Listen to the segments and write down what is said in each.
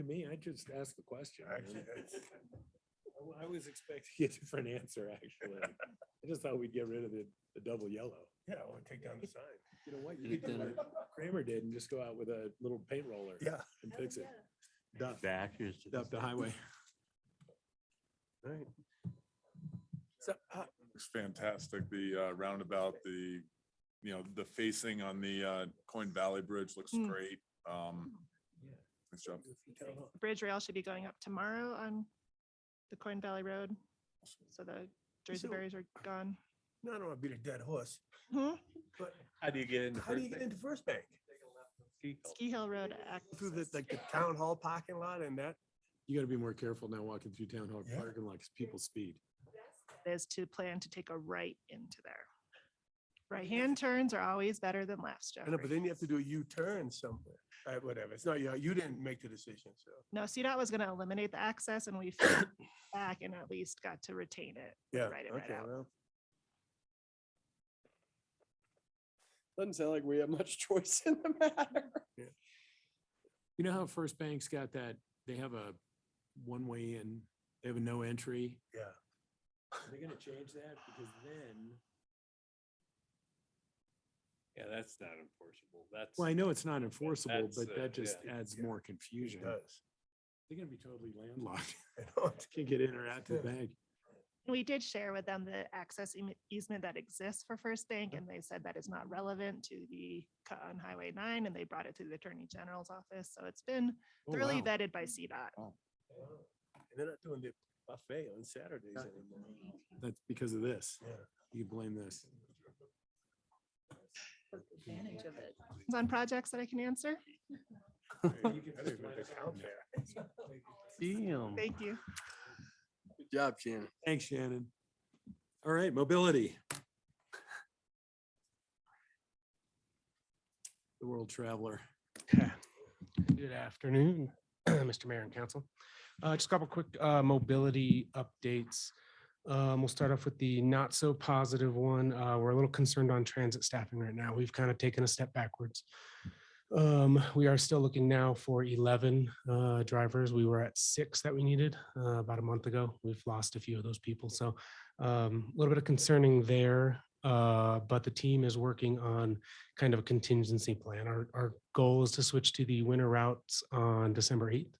to me, I just asked the question. I Actually, mean, that's- I wa- I was expecting a different answer, actually. I just thought we'd get rid of the, the double yellow. Yeah, I want to take down the sign. You know what? You've You could do done what Kramer did and just go out with a little paint roller Yeah. and fix it. Duff, Back is. to duff the highway. Right. So, uh, It's fantastic. The uh, roundabout, the, you know, the facing on the uh, Coin Valley Bridge looks Mm. great. Um, Nice job. The Bridge rail should be going up tomorrow on the Coin Valley Road, so the Jersey So- barriers are gone. No, I don't want to beat a dead horse, Hmm? but How do you get in the how do first you get thing? into First Bank? Ski Hill Road Act. Through the, like the town hall parking lot and that? You gotta be more careful now walking through town hall Yeah. parking lot 'cause people speed. Is to plan to take a right into there. Right-hand turns are always better than lefts, I know, but Jeffrey. then you have to do a U-turn somewhere. All right, whatever. It's not, you, you didn't make the decision, so. No, CDOT was gonna eliminate the access and we fought back and at least got to retain it. Yeah. Write it right okay, out. well, Doesn't sound like we have much choice in the matter. You know how First Bank's got that, they have a one-way in, they have a no entry? Yeah. Are they gonna change that? Because then. Yeah, that's not enforceable. That's. Well, I know it's not enforceable, that's, but uh, that just yeah. adds Yeah. more It confusion. does. They're gonna be totally landlocked. I know. Can't get in or out to the Yeah. bank. We did share with them the access eame- easement that exists for First Bank and they said that is not relevant to the cut on Highway nine and they brought it to the Attorney General's office. So it's been Oh, thoroughly wow. vetted by CDOT. And they're not doing the buffet on Saturdays Yeah. anymore. That's because of this. Yeah. You blame this. advantage of it. Questions On projects that I can answer? I didn't even count there. Damn. Thank you. Good job, Shannon. Thanks, Shannon. All right, mobility. The world traveler. Good afternoon, Mr. Mayor and Council. Uh, Just a couple quick quick mobility updates. Um, We'll start off with the not so positive one. Uh, We're a little concerned on transit staffing right now. We've kind of taken a step backwards. Um, We are still looking now for 11 uh, drivers. We were at six that we needed uh, about a month ago. We've lost a few of those people, so um, a little bit of concerning there. uh, But the team is working on kind of a contingency plan. Our, our goal is to switch to the winter routes on December 8th.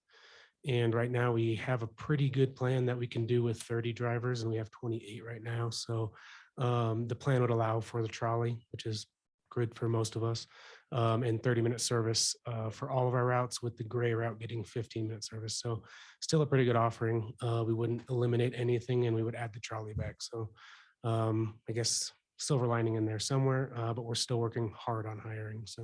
And right now we have a pretty good plan that we can do with 30 drivers and we have 28 right now. So um, the plan would allow for the trolley, which is good for most of us. um, and 30 minute service uh, for all of our routes with the gray route getting 15 minute service. So still a pretty good offering. Uh, we wouldn't eliminate anything and we would add the trolley back. So um, I guess silver lining in there somewhere, uh, but we're still working hard on hiring. So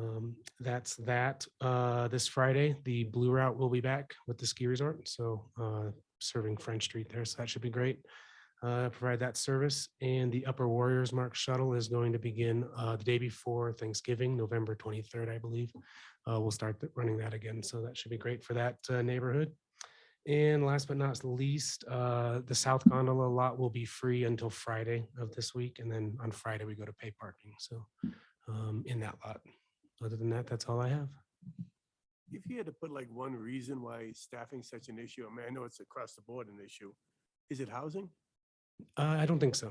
um, that's that. Uh, this Friday, the Blue Route will be back with the ski resort. So uh, serving French Street there. So that should be great. Uh, provide that service. And the Upper Warriors Mark shuttle is going to begin uh, the day before Thanksgiving, November 23rd, I believe. Uh, we'll start th- running that again. So that should be great for that uh, neighborhood. And last but not least, uh, the South Gondola lot will be free until Friday of this week. And then on Friday, we go to pay parking. So um, in that lot. Other than that, that's all I have. If you had to put like one reason why staffing's such an issue, I mean, I know it's across the board an issue. Is it housing? Uh, I don't think so.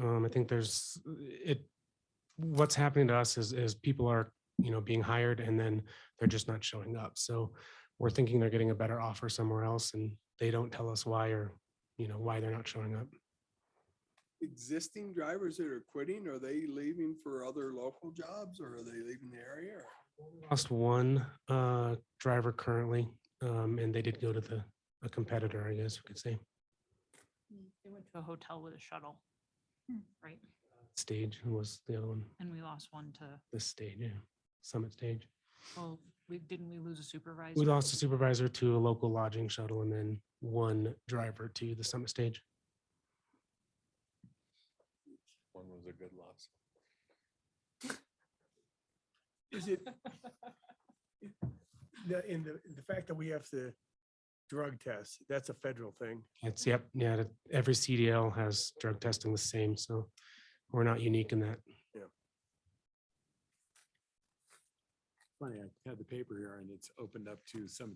Um, I think there's it. What's happening to us is is people are you know being hired and then they're just not showing up. So we're thinking they're getting a better offer somewhere else, and they don't tell us why or you know why they're not showing up. Existing drivers that are quitting, are they leaving for other local jobs or are they leaving the area? or- Lost one uh, driver currently, um, and they did go to the a competitor, I guess we could say They went to a hotel with a shuttle, right? stage who was the other one. And we lost one to, The stage, yeah, summit stage. well, we, didn't we lose a supervisor? We lost a supervisor to a local lodging shuttle and then one driver to the summit stage. One was a good loss. Is it? The, in the, the fact that we have to drug test, that's a federal thing. It's, yep, yeah, that- every CDL has drug testing the same, so we're not unique in that. Funny, I had the paper here and it's opened up to some